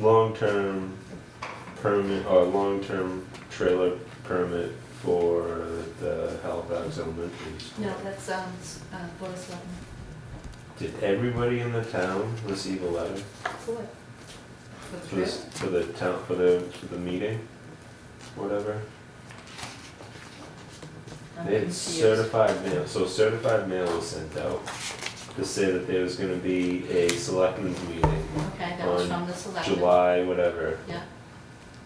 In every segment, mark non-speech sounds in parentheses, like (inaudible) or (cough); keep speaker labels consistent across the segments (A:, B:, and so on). A: long-term permit, or long-term trailer permit for the Halifax Elementary School.
B: No, that sounds, uh, Board of Selectmen.
A: Did everybody in the town receive a letter
B: For the
A: for this,
B: trip?
A: for the town, for the, for the meeting? Whatever,
B: I'm
A: they had
B: confused.
A: certified mail, so certified mail was sent out to say that there was gonna be a selectmen's meeting,
B: Okay, that was
A: on
B: from the selectmen.
A: July, whatever.
B: Yeah,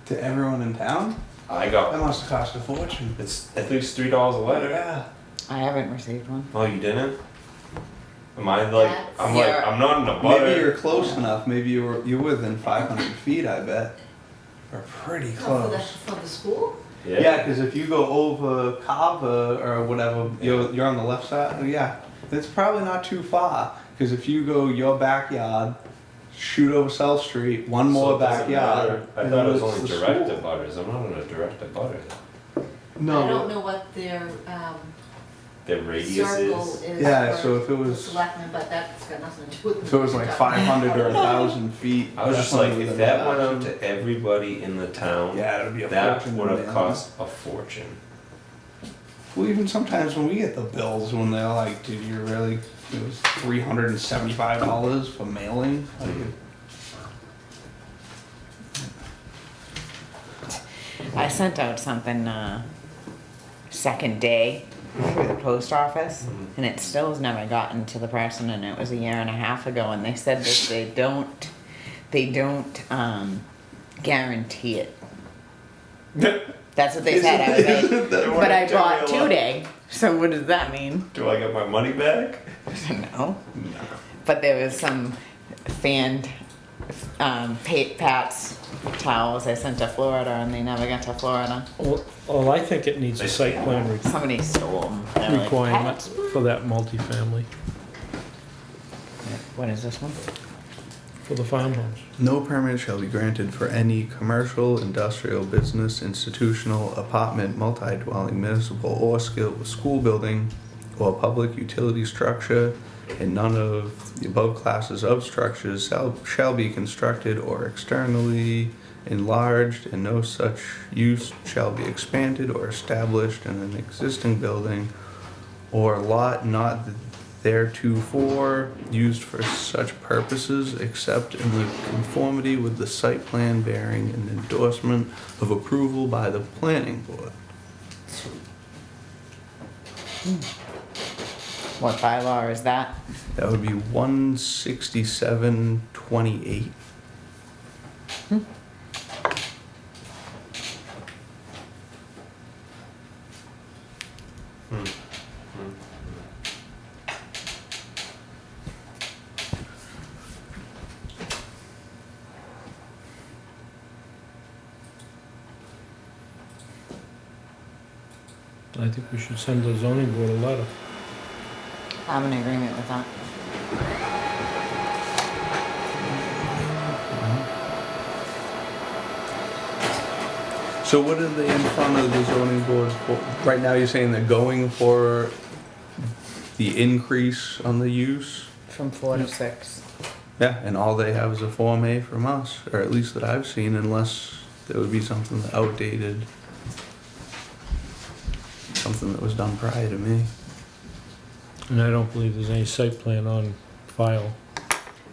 C: To everyone in town?
A: I
C: That
A: got,
C: must have cost a fortune.
A: it's at least three dollars a letter.
C: Yeah.
D: I haven't received one.
A: Oh, you didn't? Am I like, I'm like,
D: That's-
A: I'm not in a
C: Maybe you're
A: butter.
C: close enough. Maybe you were you were within 500 feet. I bet. Or pretty
B: oh, for the,
C: close.
B: for the school?
C: Yeah, because if you go over Kava or whatever, you're, you're on the left side. oh, Yeah, that's probably not too far. Because if you go your backyard, shoot over South Street, one more
A: So it doesn't
C: backyard.
A: matter. I
C: and
A: thought it was
C: it's
A: only
C: the
A: direct
C: school.
A: abutters, I'm not gonna direct abutter.
B: I don't
C: No.
B: know what their, um,
A: Their radius
B: circle
A: is,
B: is
C: Yeah,
B: for
C: so if it
B: the
C: was
B: selectmen, but that's got nothing to do with.
C: if it was like 500 or a thousand feet.
A: I was just like,
C: definitely
A: if
C: within
A: that went
C: thousand.
A: out to everybody in the town,
C: Yeah, it would be a
A: that
C: fortune.
A: would have
C: man.
A: cost a fortune.
C: Well, even sometimes when we get the bills, when they're like, "Dude, you're really it was three hundred and seventy-five dollars for mailing." Like,
D: I sent out something uh, second day through the post office, and it still has never gotten to the person. And it was a year and a half ago, and they said that they don't, they don't um, guarantee it. That's what they said. I was like, but I bought two day. So what does that mean?
A: Do I get my money back?
D: I don't (laughs) know.
C: No.
D: But there was some fanned um, pa- Pat's towels I sent to Florida, and they never got to Florida.
E: Well, well, I think it needs a site plan re-
D: Somebody stole them. They're like,
E: requirement
D: "Pat,
E: for that multifamily,
D: What is this one?
E: for the farmhouse.
C: No permit shall be granted for any commercial, industrial, business, institutional, apartment, multi-dwelling, municipal, or skill, school building, or public utility structure, and none of the above classes of structures shall, shall be constructed or externally enlarged, and no such use shall be expanded or established in an existing building or lot not theretofore used for such purposes except in the conformity with the site plan bearing an endorsement of approval by the planning board.
D: What bylaw is that?
C: That would be one sixty-seven twenty-eight. Hmm.
E: I think we should send the zoning board a letter.
D: I'm in agreement with that.
C: So what are they in front of the zoning board for? Right now, you're saying they're going for the increase on the use?
D: From four to six.
C: Yeah, and all they have is a Form A from us, or at least that I've seen, unless there would be something outdated. Something that was done prior to me.
E: And I don't believe there's any site plan on file.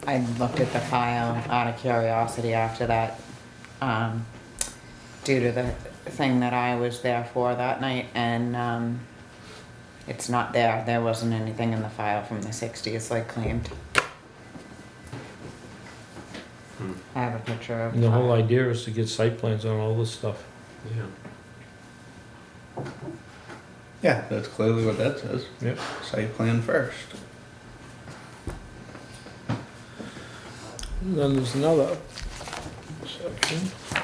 D: I looked at the file out of curiosity after that, um, due to the thing that I was there for that night, and, um, it's not there, there wasn't anything in the file from the sixties like claimed.
A: Hmm.
D: I have a picture of.
E: And the whole
D: file.
E: idea is to get site plans on all this stuff.
A: Yeah.
C: Yeah, that's clearly what that says.
E: Yep.
C: Site plan first.
E: And then there's another section.